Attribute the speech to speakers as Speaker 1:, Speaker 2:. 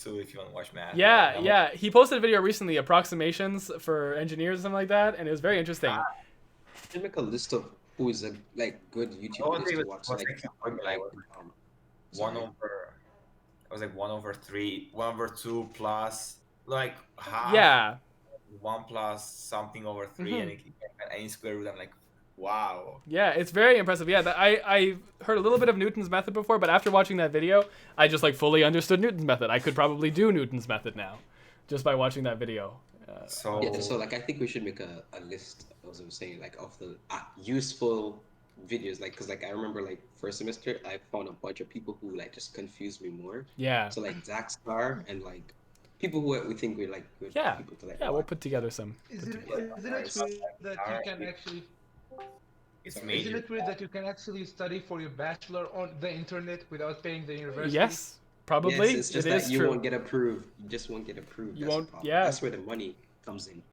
Speaker 1: So if you want to watch math.
Speaker 2: Yeah,
Speaker 1: right now.
Speaker 2: yeah. He posted a video recently, approximations for engineers or something like that, and it was very interesting.
Speaker 3: Can make a list of who is a like good
Speaker 1: The
Speaker 3: YouTube
Speaker 1: only
Speaker 3: list
Speaker 1: thing
Speaker 3: to
Speaker 1: was-
Speaker 3: watch.
Speaker 1: was
Speaker 3: Like,
Speaker 1: like, I'm like,
Speaker 3: um,
Speaker 1: one
Speaker 3: sorry.
Speaker 1: over. It was like one over three, one over two plus like
Speaker 3: Ah.
Speaker 1: half.
Speaker 2: Yeah, Mm-hmm.
Speaker 1: One plus something over 3 and it, and any square root. I'm like, wow.
Speaker 2: yeah. It's very impressive. Yeah, that, I I heard a little bit of Newton's method before, but after watching that video, I just like fully understood Newton's method. I could probably do Newton's method now, just by watching that video. Uh,
Speaker 1: So
Speaker 3: Yeah, so like I think we should make a, a list, as I was saying, like of the uh, useful videos, like because like I remember like first semester I found a bunch of people who like just confused me more.
Speaker 2: yeah,
Speaker 3: So like Zach Star and like people who we think we're like good
Speaker 2: Yeah.
Speaker 3: people to like.
Speaker 2: yeah. We'll
Speaker 3: watch.
Speaker 2: put together some.
Speaker 4: Isn't it,
Speaker 1: together.
Speaker 4: isn't it
Speaker 1: Alright.
Speaker 4: true that you can actually
Speaker 1: it's
Speaker 4: isn't
Speaker 1: major.
Speaker 4: it weird that you can actually study for your bachelor on the internet without paying the university?
Speaker 2: Yes, probably.
Speaker 3: Yes, it's just
Speaker 2: It
Speaker 3: that
Speaker 2: is
Speaker 3: you
Speaker 2: true.
Speaker 3: won't get approved. You just won't get approved.
Speaker 2: You
Speaker 3: That's the
Speaker 2: won't-
Speaker 3: problem.
Speaker 2: yeah.
Speaker 3: That's where the money comes in.